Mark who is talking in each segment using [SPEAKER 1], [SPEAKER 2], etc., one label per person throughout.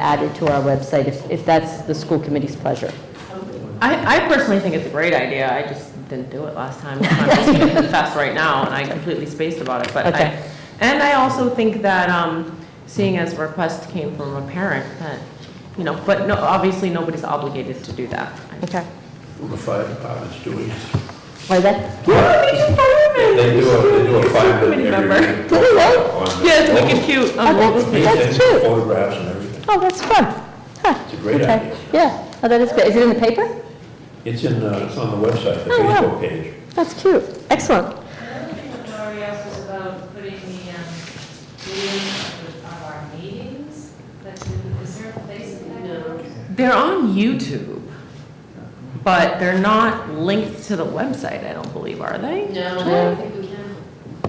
[SPEAKER 1] added to our website, if, if that's the school committee's pleasure.
[SPEAKER 2] I, I personally think it's a great idea, I just didn't do it last time. I'm just gonna confess right now, and I completely spaced about it, but
[SPEAKER 1] Okay.
[SPEAKER 2] I, and I also think that, um, seeing as a request came from a parent, that, you know, but no, obviously, nobody's obligated to do that.
[SPEAKER 1] Okay.
[SPEAKER 3] The fire department's doing it.
[SPEAKER 1] Why that?
[SPEAKER 3] They do, a- they do a fire
[SPEAKER 2] Committee
[SPEAKER 3] every
[SPEAKER 2] member.
[SPEAKER 3] week.
[SPEAKER 1] Do they really?
[SPEAKER 3] On the-
[SPEAKER 2] Yeah, it's wicked cute. Um,
[SPEAKER 1] Okay.
[SPEAKER 3] They
[SPEAKER 1] That's
[SPEAKER 3] send
[SPEAKER 1] cute.
[SPEAKER 3] Photographs and everything.
[SPEAKER 1] Oh, that's fun. Huh.
[SPEAKER 3] It's a great
[SPEAKER 1] Okay.
[SPEAKER 3] idea.
[SPEAKER 1] Yeah, oh, that is good. Is it in the paper?
[SPEAKER 3] It's in, uh, it's on the website, the
[SPEAKER 1] Oh, wow.
[SPEAKER 3] Facebook page.
[SPEAKER 1] That's cute. Excellent.
[SPEAKER 4] Another thing that Lori asked was about putting the um, meetings of our meetings, that's, in- is there a place in that? No.
[SPEAKER 2] They're on YouTube, but they're not linked to the website, I don't believe, are they?
[SPEAKER 5] No, I don't think we can,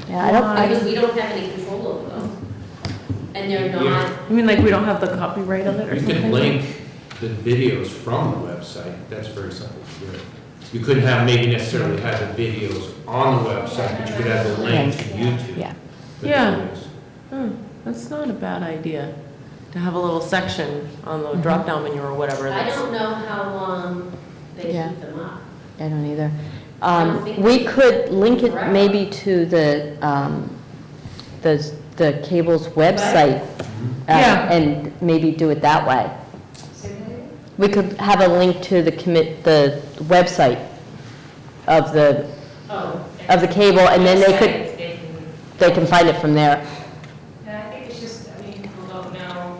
[SPEAKER 1] Yeah, I don't,
[SPEAKER 5] because we don't have any control over them. And they're not,
[SPEAKER 2] You mean like we don't have the copyright of it or
[SPEAKER 6] You
[SPEAKER 2] something?
[SPEAKER 6] can link the videos from the website, that's very simple to do. You couldn't have, maybe necessarily have the videos on the website, but you could have the link to YouTube.
[SPEAKER 1] yeah.
[SPEAKER 6] for
[SPEAKER 2] Yeah.
[SPEAKER 6] videos.
[SPEAKER 2] Hmm, That's not a bad idea, to have a little section on the drop-down menu or whatever.
[SPEAKER 5] Mm-hmm. I
[SPEAKER 2] that's-
[SPEAKER 5] don't know how long they
[SPEAKER 1] Yeah.
[SPEAKER 5] keep them up.
[SPEAKER 1] I don't either.
[SPEAKER 5] I don't
[SPEAKER 1] Um,
[SPEAKER 5] think
[SPEAKER 1] We
[SPEAKER 5] we-
[SPEAKER 1] could link it maybe to the, um, the, the cable's website. uh,
[SPEAKER 2] Yeah.
[SPEAKER 1] And maybe do it that way. We could have a link to the commit, the website of the,
[SPEAKER 5] Oh.
[SPEAKER 1] of the cable, and then they could,
[SPEAKER 4] Website, they can-
[SPEAKER 1] they can find it from there.
[SPEAKER 4] Yeah, I think it's just, I mean, people don't know,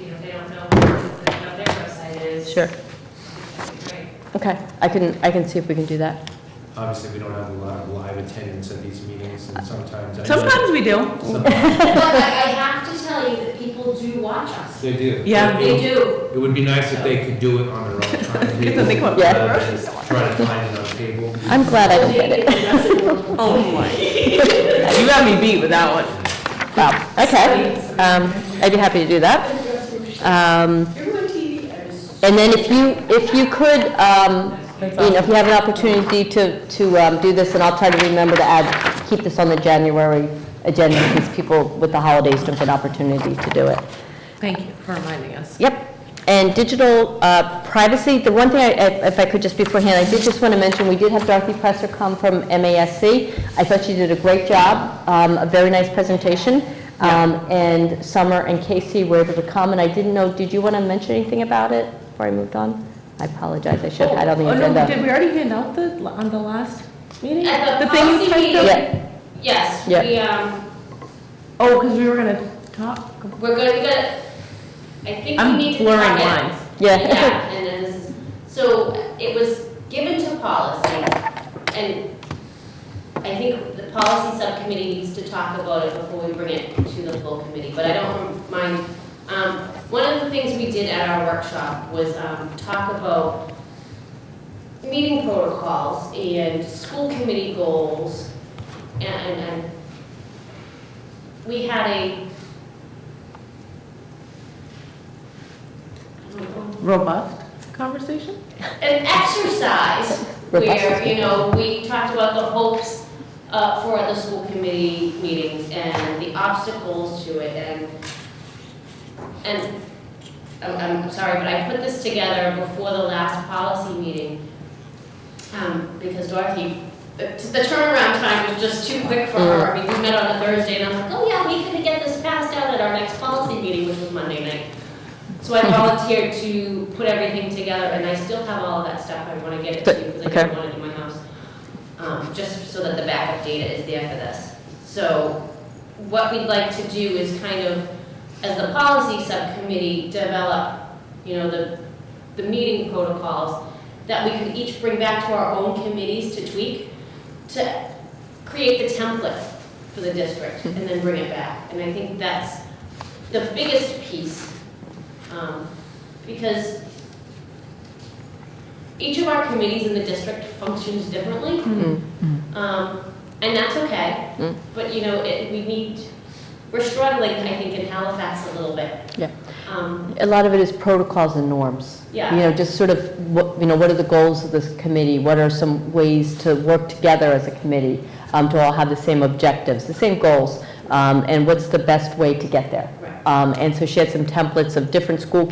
[SPEAKER 4] you know, they don't know what the- what their website is.
[SPEAKER 1] Sure.
[SPEAKER 4] That'd be great.
[SPEAKER 1] Okay, I can, I can see if we can do that.
[SPEAKER 6] Obviously, we don't have a lot of live attendance at these meetings, and sometimes. I know-
[SPEAKER 2] Sometimes we do.
[SPEAKER 6] Sometimes
[SPEAKER 5] But I, I have to tell you that people do watch us.
[SPEAKER 6] They do.
[SPEAKER 2] Yeah.
[SPEAKER 6] It-
[SPEAKER 5] They do.
[SPEAKER 6] It would be nice if they could do it on their own time.
[SPEAKER 2] Get the thing up.
[SPEAKER 1] Yeah.
[SPEAKER 6] rather than Try to find it on cable.
[SPEAKER 1] I'm glad I don't get it.
[SPEAKER 2] Oh, my. You got me beat with that one.
[SPEAKER 1] Wow, okay. Um, I'd be happy to do that. Um, And then if you, if you could, um, you know, if you have an opportunity to, to um, do this, and I'll try to remember to add, keep this on the January agenda, because people with the holidays don't get an opportunity to do it.
[SPEAKER 2] Thank you for reminding us.
[SPEAKER 1] Yep. And digital uh, privacy, the one thing, I- if if I could just beforehand, I did just want to mention, we did have Dorothy Presser come from MASC. I thought she did a great job, um, a very nice presentation. Um, And Summer and Casey were able to come, and I didn't know, did you want to mention anything about it before I moved on? I apologize, I should have had it on the
[SPEAKER 2] Oh, no,
[SPEAKER 1] agenda.
[SPEAKER 2] Did we already hand out the, on the last meeting?
[SPEAKER 5] At the
[SPEAKER 2] thing you
[SPEAKER 5] policy
[SPEAKER 2] typed up?
[SPEAKER 5] meeting.
[SPEAKER 1] Yeah,
[SPEAKER 5] Yes,
[SPEAKER 1] Yeah.
[SPEAKER 5] we, um,
[SPEAKER 2] Oh, because we were gonna talk.
[SPEAKER 5] we're gonna, we gotta, I think we
[SPEAKER 2] I'm
[SPEAKER 5] need to.
[SPEAKER 2] blurring
[SPEAKER 5] talk it.
[SPEAKER 2] lines.
[SPEAKER 1] yeah.
[SPEAKER 5] Yeah, and then this is, so it was given to policy, and I think the policy subcommittee needs to talk about it before we bring it to the full committee, but I don't mind. Um, one of the things we did at our workshop was, um, talk about meeting protocols and school committee goals, and, and we had a, I don't know,
[SPEAKER 2] Robust conversation?
[SPEAKER 5] an exercise where, you know, we talked about the hopes uh, for the school committee meetings and the obstacles to it and, and I'm, I'm sorry, but I put this together before the last policy meeting um, because Dorothy, the the turnaround time was just too quick for her. I mean, we met on a Thursday and I'm like, oh yeah, we could get this passed out at our next policy meeting, which was Monday night. So I volunteered to put everything together, and I still have all of that stuff, I want to get it to you, because I
[SPEAKER 1] Okay.
[SPEAKER 5] don't want it in my house. Um, just so that the backup data is there for this. So what we'd like to do is kind of, as the policy subcommittee, develop, you know, the, the meeting protocols that we could each bring back to our own committees to tweak, to create the template for the district, and then bring it back. And I think that's the biggest piece um, Because each of our committees in the district functions differently,
[SPEAKER 1] Mm.
[SPEAKER 5] um, and that's okay.
[SPEAKER 1] Mm.
[SPEAKER 5] But, you know, it, we need, we're struggling, I think, in Halifax a little bit.
[SPEAKER 1] Yeah.
[SPEAKER 5] Um,
[SPEAKER 1] A lot of it is protocols and norms.
[SPEAKER 5] Yeah.
[SPEAKER 1] You know, just sort of, what you know, what are the goals of this committee? What are some ways to work together as a committee um, to all have the same objectives, the same goals? um, And what's the best way to get there?
[SPEAKER 5] Right.
[SPEAKER 1] Um, And so she had some templates of different school